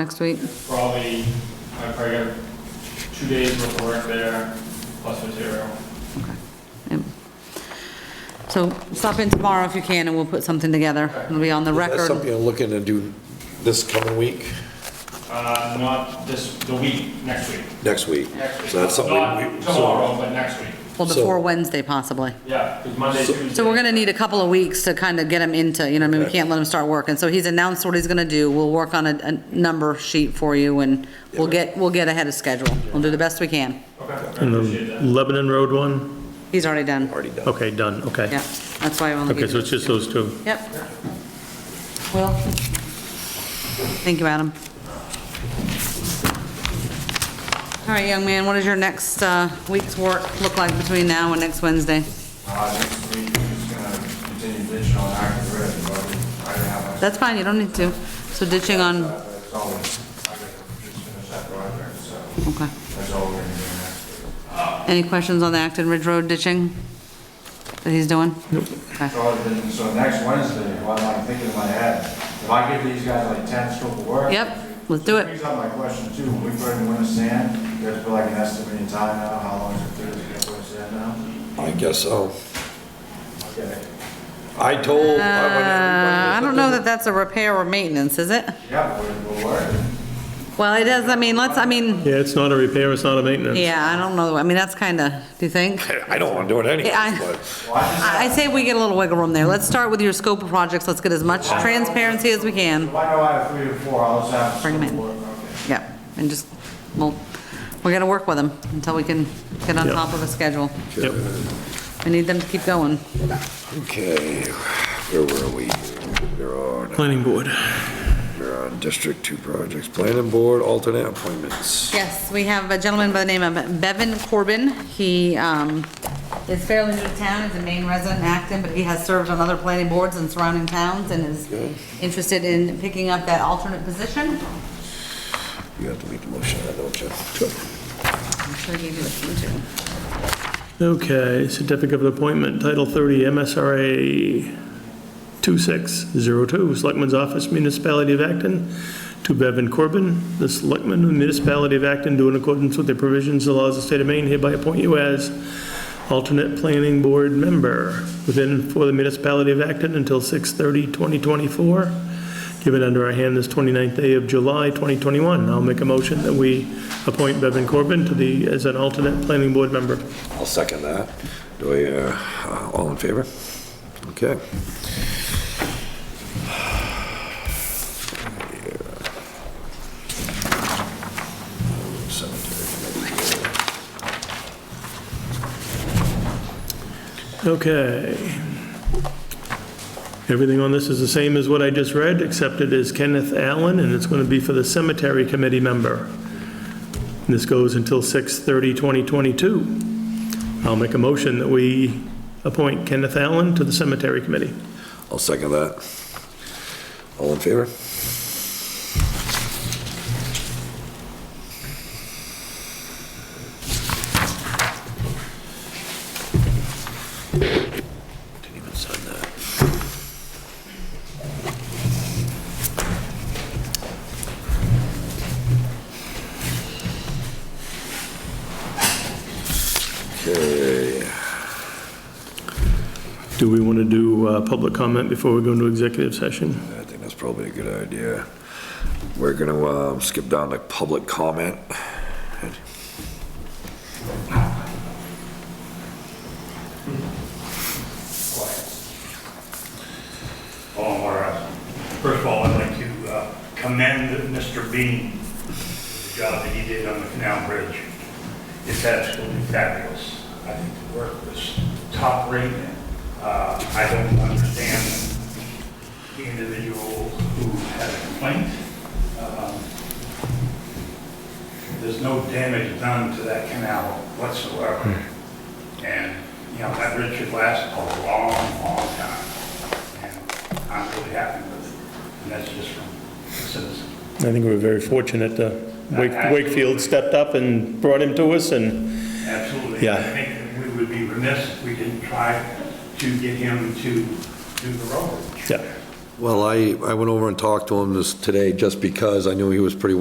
next week? Probably, I probably got two days worth of work there, plus material. Okay. Yep. So stop in tomorrow if you can, and we'll put something together. It'll be on the Is that record. something you're looking to do this coming week, Uh, not this, the week, next week, next week? next week. So that's something we- Not we. so- tomorrow, but next week, Well, before Wednesday possibly. yeah, because Monday, Tuesday. So we're gonna need a couple of weeks to kind of get him into, you know, what I mean, we Okay. can't let him start working. So he's announced what he's gonna do. We'll work on a, a number sheet for you, and we'll get, we'll get ahead of schedule. We'll do the best we can. Okay, I And appreciate the that. Lebanon Road one? He's already done. Already done. Okay, done, okay. Yeah, that's why I only. Okay, so it's just those two. Yep. Will? Thank you, Adam. All right, young man, what does your next uh, week's work look like between now and next Wednesday? Uh, next week, we're just gonna continue ditching on active grid, but I have, That's fine, you don't need to. So ditching on, uh, it's always, I gotta just finish that project, so okay. that's all we're gonna do next week. Any questions on the Acton Ridge Road ditching that he's doing? Nope. So, I didn't- so next Wednesday, what I'm thinking in my head, if I give these guys like ten scope of work. Yep, let's do it. Brings up my question too, when we put in winter sand, you guys put like an estimate in time now, how long is it, thirty, to put sand now? I guess so. Okay. I told. Uh, I don't know that that's a repair or maintenance, is it? Yeah, we're, we're working. Well, it is, I mean, let's, I mean, Yeah, it's not a repair, it's not a maintenance. yeah, I don't know, I mean, that's kind of, do you think? I don't want to do it anyway, Yeah, I- but Well, I just I I say we get a little wiggle room there. Let's start with your scope of projects. Let's get as much transparency as we can. If I know I have three or four, I'll just have. Bring 'em scope of work, Okay. Yeah, and just, well, we're gonna work with them until we can get on Yeah. top of a schedule. Yep. We need them to keep going. okay, where were we? We're on, Planning board. we're on District Two projects, planning board, alternate appointments. Yes, we have a gentleman by the name of Bevan Corbin. He um, is fairly new to town, he's a Maine resident in Acton, but he has served on other planning boards in surrounding towns and is interested in picking up that alternate position. You have to make the motion, I don't you? I'm sure you do it, you too. Okay, certificate of appointment, Title 30, MSRA 2602, Selectman's Office, Municipality of Acton, to Bevan Corbin, the Selectman of the Municipality of Acton, do in accordance with the provisions of the laws of the state of Maine, hereby appoint you as alternate planning board member within and for the municipality of Acton until 6/30/2024, given under our hand this 29th day of July 2021. I'll make a motion that we appoint Bevan Corbin to the, as an alternate planning board member. I'll second that. Do I, uh, all in favor? Okay. Okay. Everything on this is the same as what I just read, except it is Kenneth Allen, and it's going to be for the Cemetery Committee member. This goes until 6/30/2022. I'll make a motion that we appoint Kenneth Allen to the Cemetery Committee. I'll second that. All in favor? Didn't even sign that. Okay, Do we want to do uh, public comment before we go into executive session? I think that's probably a good idea. We're gonna um, skip down to public comment. Paul Morris. uh, First of all, I'd like to uh, commend Mr. Bean, for the job that he did on the canal bridge. It's absolutely fabulous. I think the work was top rate. Uh, I don't understand the individual who had a complaint. Um, There's no damage done to that canal whatsoever. Hmm. And, you know, that bridge should last a long, long time. And I'm really happy with it. And that's just from the citizens. I think we were very fortunate. uh, Wake- Wakefield stepped up and brought him to us, and Absolutely. Yeah. I think we would be remiss if we didn't try to get him to do the road. Yeah. Well, I, I went over and talked to him this, today, just because I knew he was pretty